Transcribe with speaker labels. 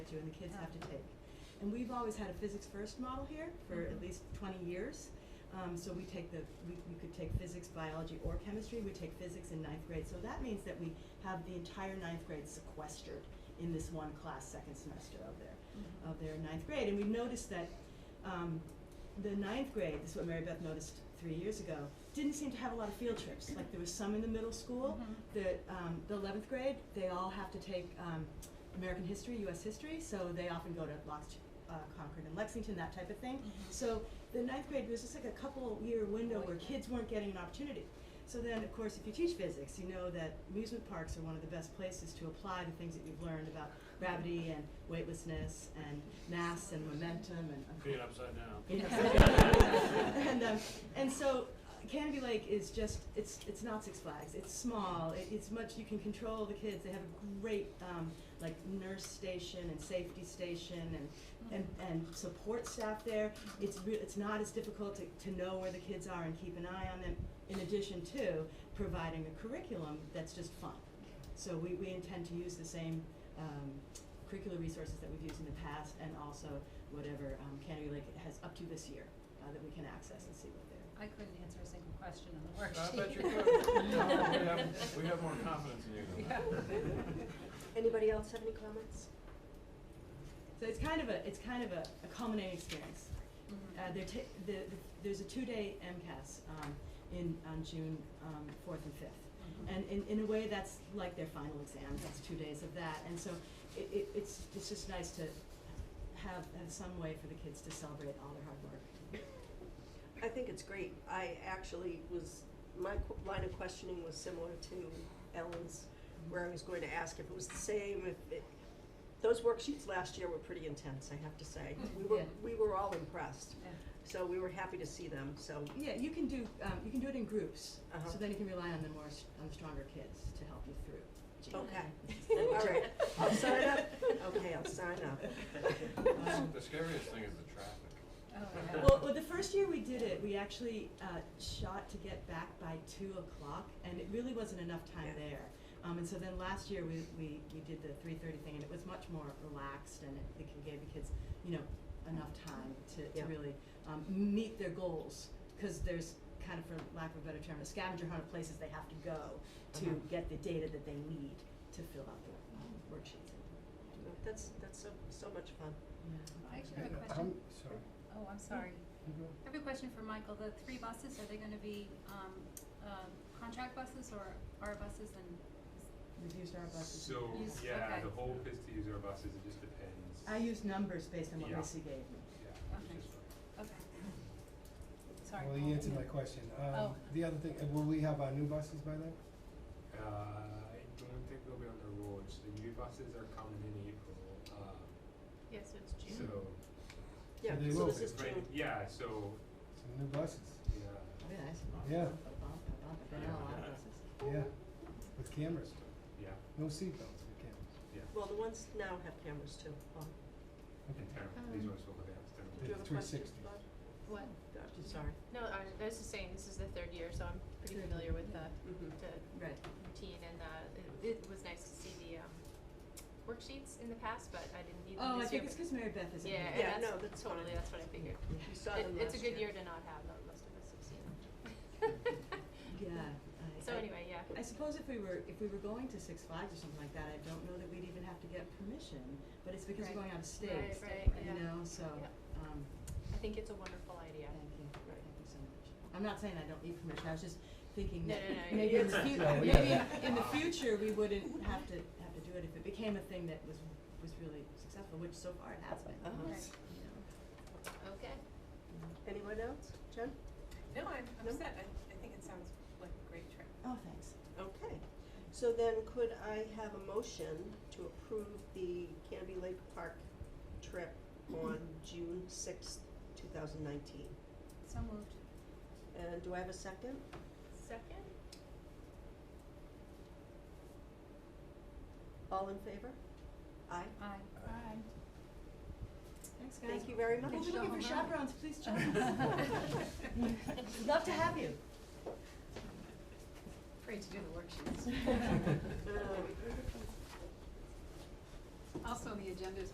Speaker 1: that you and the kids have to take. And we've always had a physics first model here for at least twenty years. Um, so we take the, we, we could take physics, biology, or chemistry, we take physics in ninth grade, so that means that we have the entire ninth grade sequestered in this one class, second semester of their, of their ninth grade, and we noticed that, um, the ninth grade, this is what Mary Beth noticed three years ago, didn't seem to have a lot of field trips, like there was some in the middle school, the, um, the eleventh grade, they all have to take, um, American history, US history, so they often go to Lox, uh, Concord and Lexington, that type of thing, so the ninth grade was just like a couple year window where kids weren't getting an opportunity. So then, of course, if you teach physics, you know that amusement parks are one of the best places to apply the things that you've learned about gravity and weightlessness and mass and momentum and.
Speaker 2: Being upside down.
Speaker 1: You know,
Speaker 3: Yeah.
Speaker 1: and um, and so uh, Canopy Lake is just it's it's not Six Flags. It's small. It, it's much you can control the kids. They have a great um, like nurse station and safety station and and, and support staff there. It's re- it's not as difficult to, to know where the kids are and keep an eye on them. In addition to providing a curriculum that's just fun. So we, we intend to use the same um, curricular resources that we've used in the past and also whatever um, Canterbury Lake has up to this year uh, that we can access and see what they're.
Speaker 3: I couldn't answer a single question on the
Speaker 2: I
Speaker 3: worksheet.
Speaker 2: bet you could. No, we have, we have more confidence in you than that.
Speaker 4: Anybody else have any comments?
Speaker 1: So it's kind of a it's kind of a, a culminating experience.
Speaker 3: Oh,
Speaker 1: Uh, they're ta- the, the, there's a two-day MCAS um, in on June um, 4th and 5th. And in, in a way, that's like their final exam, that's two days of that, and so it, it, it's, it's just nice to have, have some way for the kids to celebrate all their hard work.
Speaker 4: I think it's great. I actually was, my qu- line of questioning was similar to Ellen's, where I was going to ask if it was the same, if it, those worksheets last year were pretty intense, I have to say. We were,
Speaker 1: Yeah.
Speaker 4: we were all impressed,
Speaker 3: Yeah.
Speaker 4: so we were happy to see them, so,
Speaker 1: Yeah, you can do, um, you can do it in groups,
Speaker 4: Uh-huh.
Speaker 1: so then you can rely on the more, s- on the stronger kids to help you through. Jane.
Speaker 4: okay. All right, I'll sign up. Okay, I'll sign up.
Speaker 1: Um,
Speaker 2: The scariest thing is the traffic.
Speaker 3: Oh, yeah.
Speaker 1: Well, well, the first year we did it, we actually uh, shot to get back by two o'clock, and it really wasn't enough time
Speaker 4: Yeah.
Speaker 1: there. Um, and so then last year we, we, we did the three thirty thing, and it was much more relaxed, and it, it gave the kids, you know, enough time to,
Speaker 4: Yeah.
Speaker 1: to really um, meet their goals because there's kind of, for lack of a better term, a scavenger hunt of places they have to go to
Speaker 4: Uh-huh.
Speaker 1: get the data that they need to fill out the um, worksheets.
Speaker 4: That's, that's so, so much fun.
Speaker 3: I actually have a
Speaker 5: Uh,
Speaker 3: question.
Speaker 5: I'm sorry.
Speaker 3: Oh, I'm sorry. I have a question for Michael. The three buses, are they gonna be, um, um, contract buses or our buses and?
Speaker 1: We've used our buses.
Speaker 6: So,
Speaker 3: Use-
Speaker 6: yeah,
Speaker 3: okay.
Speaker 6: the whole is to use our buses, it just depends.
Speaker 1: I used numbers based on what
Speaker 6: Yeah.
Speaker 1: Missy gave me.
Speaker 6: Yeah,
Speaker 3: Okay.
Speaker 6: which is
Speaker 3: Okay. Sorry.
Speaker 5: Well,
Speaker 3: Paul.
Speaker 5: you answered my question. Um,
Speaker 3: Oh.
Speaker 5: the other thing, uh, will we have our new buses by then?
Speaker 6: Uh, I don't think they'll be on the roads, the new buses are coming in April, um,
Speaker 3: Yes, it's
Speaker 6: so.
Speaker 4: Yeah,
Speaker 5: They
Speaker 4: so
Speaker 5: will
Speaker 4: Oh, this
Speaker 5: be
Speaker 4: is
Speaker 6: right-
Speaker 4: June.
Speaker 6: Yeah, so,
Speaker 5: Some new buses,
Speaker 6: yeah,
Speaker 1: Very nice.
Speaker 5: Yeah.
Speaker 1: I've been on a lot of buses.
Speaker 5: yeah, with cameras,
Speaker 6: yeah,
Speaker 5: no seatbelts with cameras.
Speaker 4: Well, the ones now have cameras too. Well,
Speaker 5: Okay.
Speaker 6: and terrible,
Speaker 4: Um,
Speaker 6: these ones will be outstanding.
Speaker 4: Do you have a
Speaker 5: Three
Speaker 4: question,
Speaker 5: sixties.
Speaker 4: Bob?
Speaker 7: What?
Speaker 4: I'm sorry.
Speaker 7: No, I was- I was just saying, this is the third year, so I'm pretty familiar with the,
Speaker 4: Mhm.
Speaker 7: the
Speaker 1: Right.
Speaker 7: routine and the, it, it was nice to see the, um, worksheets in the past, but I didn't need
Speaker 1: Oh,
Speaker 7: them
Speaker 1: I
Speaker 7: this year.
Speaker 1: think it's because Mary Beth is.
Speaker 7: Yeah, and
Speaker 4: Yeah,
Speaker 7: that's-
Speaker 4: no, that's fine.
Speaker 7: totally, that's what I figured.
Speaker 4: You saw
Speaker 7: It,
Speaker 4: them
Speaker 7: it's a
Speaker 4: last
Speaker 7: good year to not have, though, most of us have seen them.
Speaker 1: Yeah.
Speaker 7: So
Speaker 1: I- I-
Speaker 7: anyway, yeah.
Speaker 1: I suppose if we were, if we were going to Six Flags or something like that, I don't know that we'd even have to get permission, but it's because we're
Speaker 3: Right.
Speaker 1: going out of state.
Speaker 7: Right, right, yeah.
Speaker 1: You know, so,
Speaker 7: Yeah.
Speaker 1: um,
Speaker 7: I think it's a wonderful idea.
Speaker 1: thank you, thank you so much. I'm not saying I don't need permission, I was just thinking
Speaker 7: No,
Speaker 1: that
Speaker 7: no, no,
Speaker 1: maybe in the
Speaker 7: you're-
Speaker 1: fu-
Speaker 5: No, we-
Speaker 1: maybe in the future, we wouldn't have to, have to do it if it became a thing that was, was really successful, which so far it has been.
Speaker 4: Uh-huh.
Speaker 1: you
Speaker 7: Right.
Speaker 1: know.
Speaker 7: Okay.
Speaker 4: Anyone else? Jen?
Speaker 8: No, I'm, I'm
Speaker 4: No?
Speaker 8: set. I, I think it sounds like a great trip.
Speaker 1: Oh, thanks.
Speaker 4: Okay. So then could I have a motion to approve the Canby Lake Park trip on June sixth, two thousand nineteen?
Speaker 3: So moved.
Speaker 4: And do I have a second?
Speaker 7: Second?
Speaker 4: All in favor? Aye.
Speaker 3: Aye. Aye.
Speaker 1: Thanks, guys.
Speaker 4: Thank you very much.
Speaker 1: If you're looking for chaperones, please join us.
Speaker 4: We'd Love to have you.
Speaker 3: Afraid to do the worksheets.
Speaker 4: Uh,
Speaker 8: Also, on the agenda is